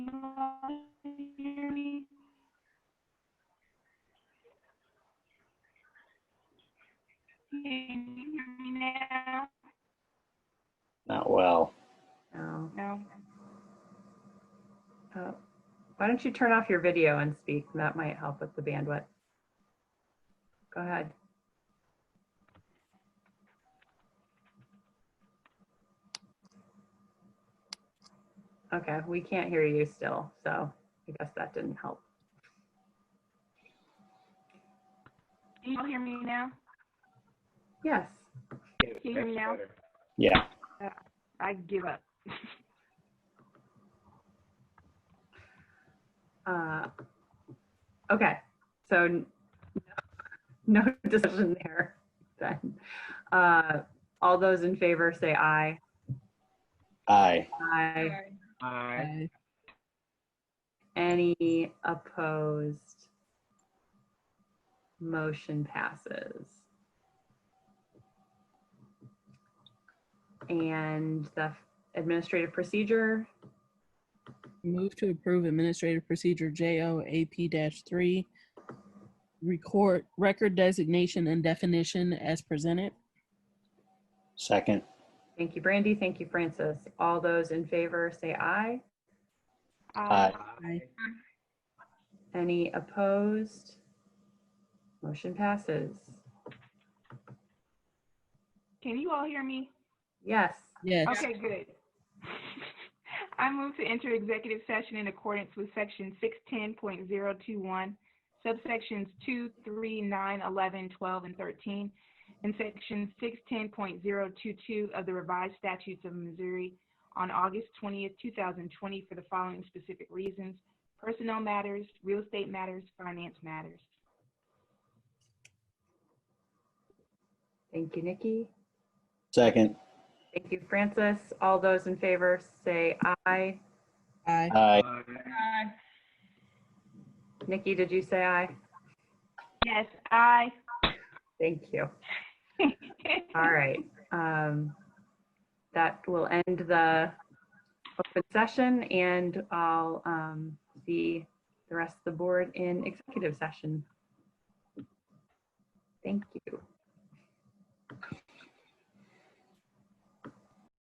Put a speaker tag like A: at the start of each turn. A: Uh,
B: Uh, Why don't you turn off your video and speak? That might help with the bandwidth. Go ahead. Okay, we can't hear you still, so I guess that didn't help.
C: Can you all hear me now?
B: Yes,
D: Yes,
C: Can you hear me
D: that's
C: now?
D: better.
A: Yeah,
C: I give up.
B: uh, okay, so n- no decision there then. Uh, All those in favor say aye.
A: aye.
B: Aye.
D: Aye.
E: 嗯
B: Any opposed? Motion passes. And the administrative procedure,
E: Move to approve Administrative Procedure JOAP-3, record, record designation and definition as presented.
A: Second,
B: thank you, Brandy, thank you, Francis. All those in favor, say aye.
C: Um,
A: aye.
D: Aye.
B: Any opposed? Motion passes.
C: Can you all hear me?
B: Yes,
E: Yes.
C: Okay, good. I move to enter executive session in accordance with section six ten point zero two one, subsections two, three, nine, eleven, twelve, and thirteen, and section six ten point zero two two of the revised statutes of Missouri on August twentieth, two thousand twenty, for the following specific reasons: personnel matters, real estate matters, finance matters.
B: thank you, Nikki.
A: Second,
B: Thank you, Francis. All those in favor, say aye.
E: Aye.
A: aye.
B: Nikki, did you say aye?
C: Yes, I.
B: Thank you. All right. um, That will end the open session and I'll um, see the rest of the board in executive session. Thank you.